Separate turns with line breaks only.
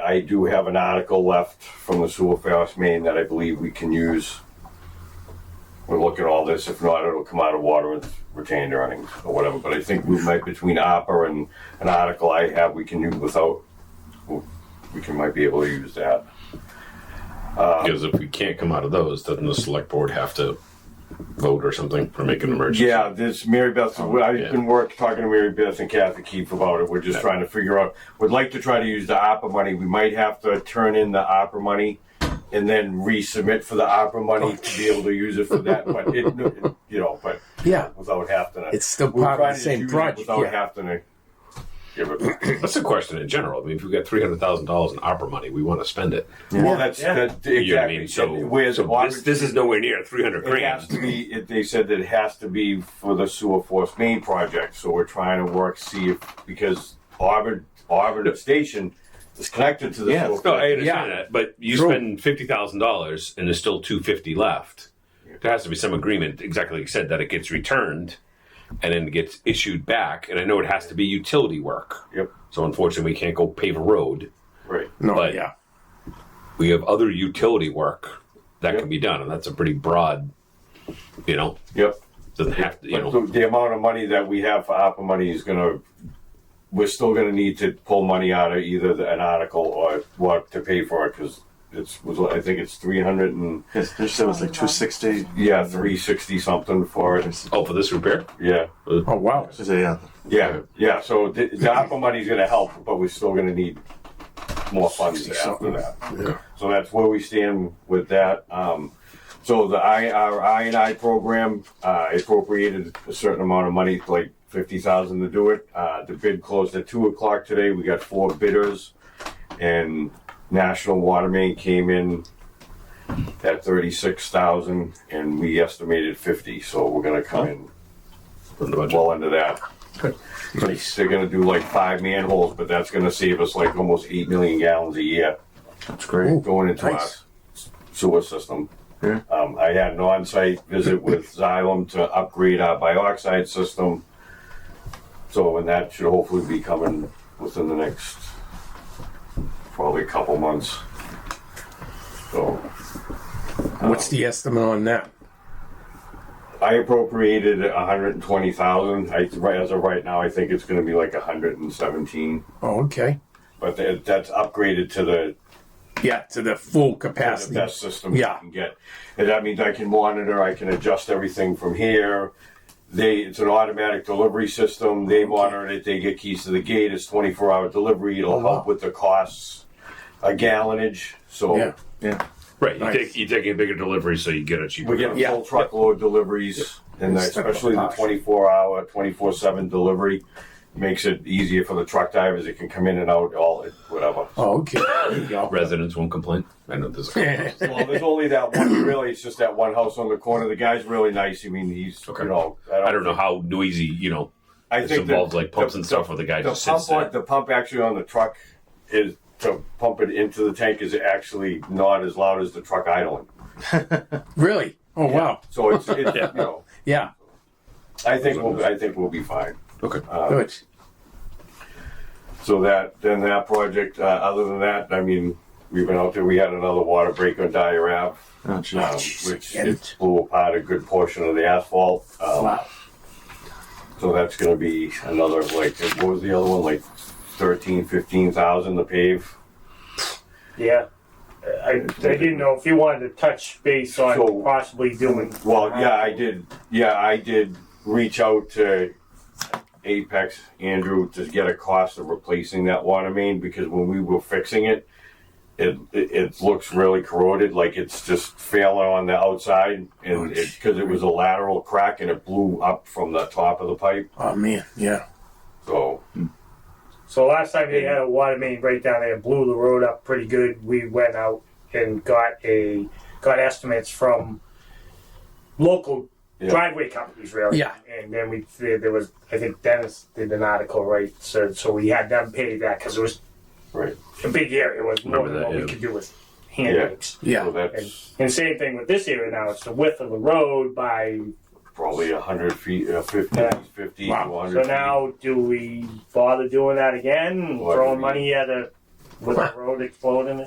I do have an article left from the sewer fast main that I believe we can use. We'll look at all this. If not, it'll come out of water with retained earnings or whatever. But I think we might, between ARPA and an article I have, we can use without, we can, might be able to use that.
Because if we can't come out of those, doesn't the select board have to vote or something or make an emergency?
Yeah, this Mary Beth,
Oh,
I've been work, talking to Mary Beth and Kathy Keefe about it. We're just trying to figure out, would like to try to use the opera money. We might have to turn in the opera money and then resubmit for the opera money to be able to use it for that, but it, you know, but
Yeah.
without having to.
It's still
we're
part of
trying
the
to
same
use it
project,
Without
yeah.
having to give it.
That's a question in general. I mean, if we've got three hundred thousand dollars in opera money, we want to spend it.
Well, that's,
Yeah.
that,
You know what I
exactly.
mean? So,
Where's
so
Auburn-
this, this is nowhere near three hundred
It has
grand.
to be, it, they said that it has to be for the sewer force main project, so we're trying to work, see if, because Auburn, Auburn Station is connected to the
Yeah,
sewer.
no,
force.
I understand
Yeah.
that, but you
True.
spend fifty thousand dollars and there's still two fifty left. There has to be some agreement, exactly like you said, that it gets returned and then gets issued back. And I know it has to be utility work.
Yep,
So unfortunately, we can't go pave a road.
right.
No,
But-
yeah.
We have other utility work that
Yep.
can be done, and that's a pretty broad, you know,
Yep.
doesn't have to, you
But
know.
the, the amount of money that we have for ARPA money is gonna, we're still gonna need to pull money out of either the- an article or what to pay for it, cause it's, was, I think it's three hundred and,
Yes, there's so it's like 260.
yeah, three sixty something for it,
Oh, for this repair?
yeah.
Oh, wow.
There's a, uh,
Yeah, yeah, so the, the ARPA money's gonna help, but we're still gonna need more funds after that. So that's where we stand with that. Um, so the I, our I and I program, uh, appropriated a certain amount of money, like fifty thousand to do it. Uh, the bid closed at two o'clock today. We got four bidders. And National Water Main came in at thirty-six thousand and we estimated fifty, so we're gonna come in
From the budget.
well into that. They're gonna do like five manholes, but that's gonna save us like almost eight million gallons a year
that's great.
going into our
Nice.
sewer system.
Yeah.
Um, I had an on-site visit with Xylem to upgrade our bioxide system. So, and that should hopefully be coming within the next probably couple months. So,
What's the estimate on that?
I appropriated a hundred and twenty thousand. I, right- as of right now, I think it's gonna be like a hundred and seventeen.
Oh, okay.
But that, that's upgraded to the
Yeah, to the full
That's the
capacity.
best system you
Yeah.
can get. And that means I can monitor, I can adjust everything from here. They, it's an automatic delivery system. They monitor it. They get keys to the gate. It's 24 hour delivery. It'll
Oh, wow.
help with the costs, a gallonage. So
Yeah.
Yeah.
Right. You
Nice.
take you take a bigger delivery so you get a cheaper.
we're getting
Yeah.
full truckload deliveries, and
It's
especially the
tough.
24 hour, 24 7 delivery makes it easier for the truck drivers. It can come in and out, all whatever.
Oh, okay. There you go.
Residents won't complain. I know this.
Well, there's only that one. Really, it's just that one house on the corner. The guy's really nice. I mean, he's
Okay.
you know.
I don't know how noisy you know
I
this
think the-
involves, like pumps
the-
and stuff where the guy
The
just
pump,
sits there.
on, the pump actually on the truck is to pump it into the tank is actually not as loud as the truck idling.
Really? Oh, wow.
So it's, it's you know,
Yeah.
I think we'll I think we'll be fine.
okay.
Good.
So that then that project. Uh, other than that, I mean, we've been out there. We had another water break on Dyer Ave,
Oh, gee.
um,
jeez,
which
again.
it blew apart a good portion of the asphalt. Um,
Wow.
So that's going to be another like what was the other one like 13, 15,000 to pave.
Yeah. I, I didn't know if you wanted to touch base on
So-
possibly doing.
Well, yeah, I did. Yeah, I did reach out to Apex Andrew to get a cost of replacing that water main because when we were fixing it, it it, it looks really corroded, like it's just failing on the outside, and because it, was a lateral crack and it blew up from the top of the pipe.
Oh, man. Yeah.
So
So last time they had a water main breakdown, they blew the road up pretty good. We went out and got a got estimates from local
Yeah.
driveway companies, really.
Yeah.
And then we there there was I think Dennis did an article right, so so we had them pay that because it was
right,
a big area. It was more
Remember
than
that,
what
yeah.
we could do with hand
Yeah.
rakes.
so
Yeah.
And,
that's
and same thing with this area now. It's the width of the road by
probably a hundred feet, uh, 50, 50 to
Wow.
a hundred.
So now, do we bother doing that again?
What do
Throwing
we-
money at a with the road exploding it.